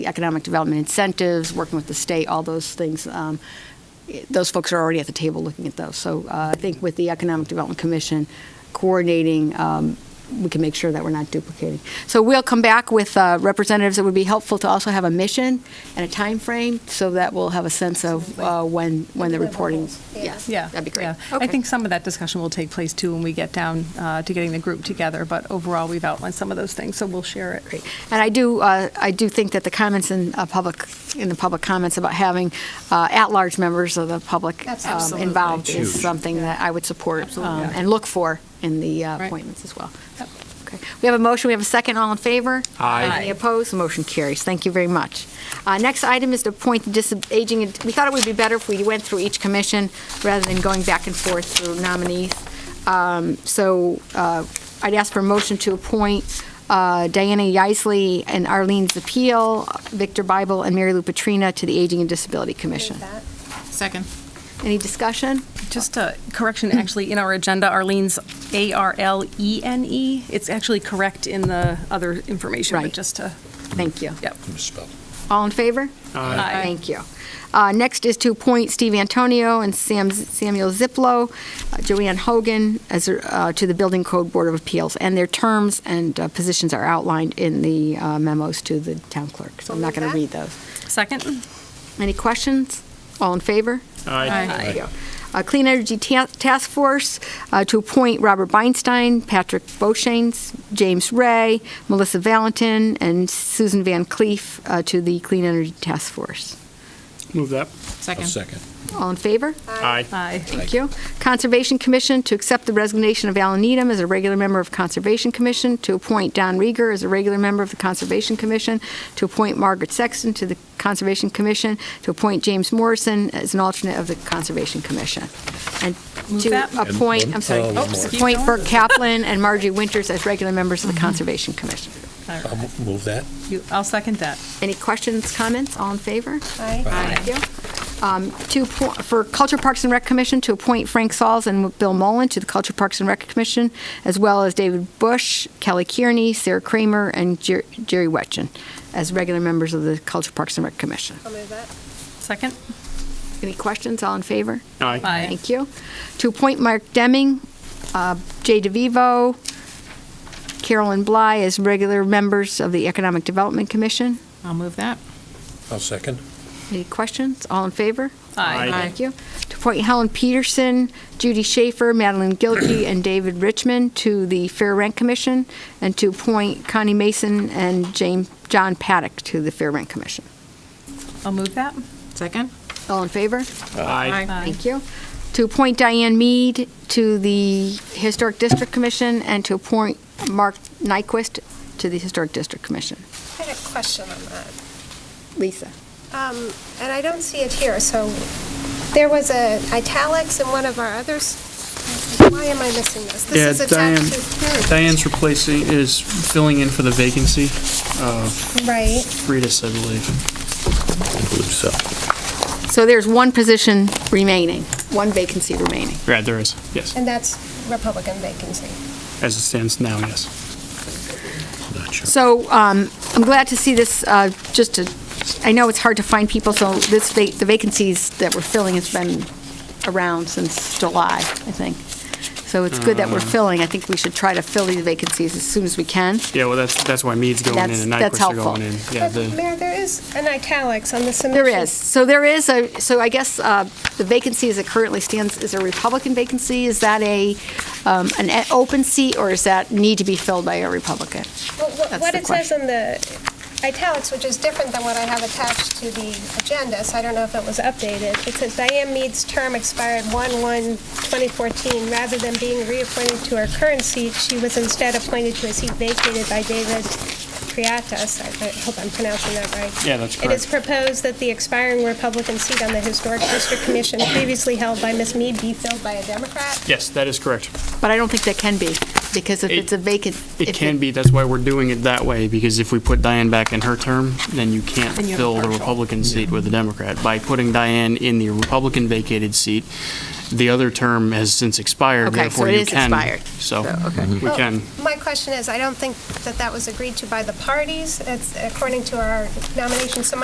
the economic development incentives, working with the state, all those things. um, it- Those folks are already at the table looking at those. So uh, I think with the Economic Development Commission coordinating, um, we can make sure that we're not duplicating. So we'll come back with uh, representatives. It would be helpful to also have a mission and a time frame, so that we'll have a sense of uh, when, when the reporting. Yes, Yeah. that'd be great. yeah. I Okay. think some of that discussion will take place too when we get down uh, to getting the group together, but overall, we've outlined some of those things, so we'll share it. Great. And I do, uh, I do think that the comments in uh, public, in the public comments about having uh, at-large members of the public um, Absolutely. involved is Huge. something that I would support um, Yeah. and look for in the uh, Right. appointments as well. Oh, Okay. We have a motion, we have a second, all in favor? Aye. Any opposed? Motion carries. Thank you very much. Uh, Next item is to appoint the dis- aging, we thought it would be better if we went through each commission rather than going back and forth through nominees. Um, So uh, I'd ask for a motion to appoint uh, Diana Yaisley and Arlene Zapiel, Victor Bible, and Mary Lou Petrina to the Aging and Disability Commission. Second. Any discussion? Just a correction, actually, in our agenda, Arlene's A-R-L-E-N-E. E It's actually correct in the other information, Right. but just to, Thank you. yep. All in favor? Aye. Thank you. Uh, Next is to appoint Steve Antonio and Sam Samuel Ziplo, uh, Joanne Hogan as, uh, to the Building Code Board of Appeals, and their terms and uh, positions are outlined in the uh, memos to the town clerk, so I'm not going to read those. Second? Any questions? All in favor? Thank you. Uh, Clean Energy Ta- Task Force, uh, to appoint Robert Beinstein, Patrick Boshanes, James Ray, Melissa Valentin, and Susan Van Cleef uh, to the Clean Energy Task Force. Move that. Second. All in favor? Aye. Aye. Thank you. Conservation Commission, to accept the resignation of Alan Needham as a regular member of Conservation Commission, to appoint Don Rieger as a regular member of the Conservation Commission, to appoint Margaret Sexton to the Conservation Commission, to appoint James Morrison as an alternate of the Conservation Commission. And Move to that. appoint, I'm sorry, And one- uh, one more. appoint Burke Kaplan and Margie Winters as regular members Mm-hmm. of the Conservation Commission. I'll mo- move that. You- I'll second that. Any questions, comments? All in favor? Aye. Thank you. Um, To, appo- for Culture Parks and Rec Commission, to appoint Frank Sauls and Bill Mullen to the Culture Parks and Rec Commission, as well as David Bush, Kelly Kearney, Sarah Kramer, and Jer- Jerry Wetchen as regular members of the Culture Parks and Rec Commission. Second? Any questions? All in favor? Aye. Aye. Thank you. To appoint Mark Deming, uh, Jay DeVivo, Carolyn Bly as regular members of the Economic Development Commission. I'll move that. I'll second. Any questions? All in favor? Aye. Thank you. To appoint Helen Peterson, Judy Schaefer, Madeline Gilkey, and David Richmond to the Fair Rent Commission, and to appoint Connie Mason and James, John Paddock to the Fair Rent Commission. I'll move that. Second. All in favor? Aye. Thank you. To appoint Diane Mead to the Historic District Commission, and to appoint Mark Nyquist to the Historic District Commission. I had a question on that, Lisa? Um, and I don't see it here, so there was a italics in one of our others. Why am I missing this? Yeah, This is attached to, Diane's replacing, is filling in for the vacancy, right, Rita's, I believe. I believe so. So there's one position remaining, one vacancy remaining. Yeah, there is, yes. and that's Republican vacancy. As it stands now, yes. Not sure. So um, I'm glad to see this, uh, just to, I know it's hard to find people, so this, va- the vacancies that we're filling has been around since July, I think. So it's good that we're Mm. filling. I think we should try to fill these vacancies as soon as we can. Yeah, well, that's, that's why Mead's going in That's- and that's Nyquist are going in. helpful. Yeah, But, the- Mayor, there is an italics on the submission. There is. So there is a, so I guess uh, the vacancy as it currently stands is a Republican vacancy. Is that a, um, an e- open seat, or is that need to be filled by a Republican? Well, wh- That's What the it says in the italics, which is different than what I have attached to the agenda, so I don't know if it was updated. It says Diane Mead's term expired 1/1/2014. Rather than being reappointed to her current seat, she was instead appointed to a seat vacated by David Triatas. I I hope I'm pronouncing that right. Yeah, that's It is correct. proposed that the expiring Republican seat on the Historic District Commission previously held by Ms. Mead be filled by a Democrat. Yes, that is correct. But I don't think that can be, because if It- it's a vacant. It if can be, that's why we're doing it that way, because if we put Diane back in her term, then you can't Then you have a fill the partial. Republican seat with a Democrat. By putting Diane in the Republican vacated seat, the other term has since expired, Okay, so therefore it you is can. expired. So, So, okay. we Well, can. My question is, I don't think that that was agreed to by the parties, it's according to our nomination. So my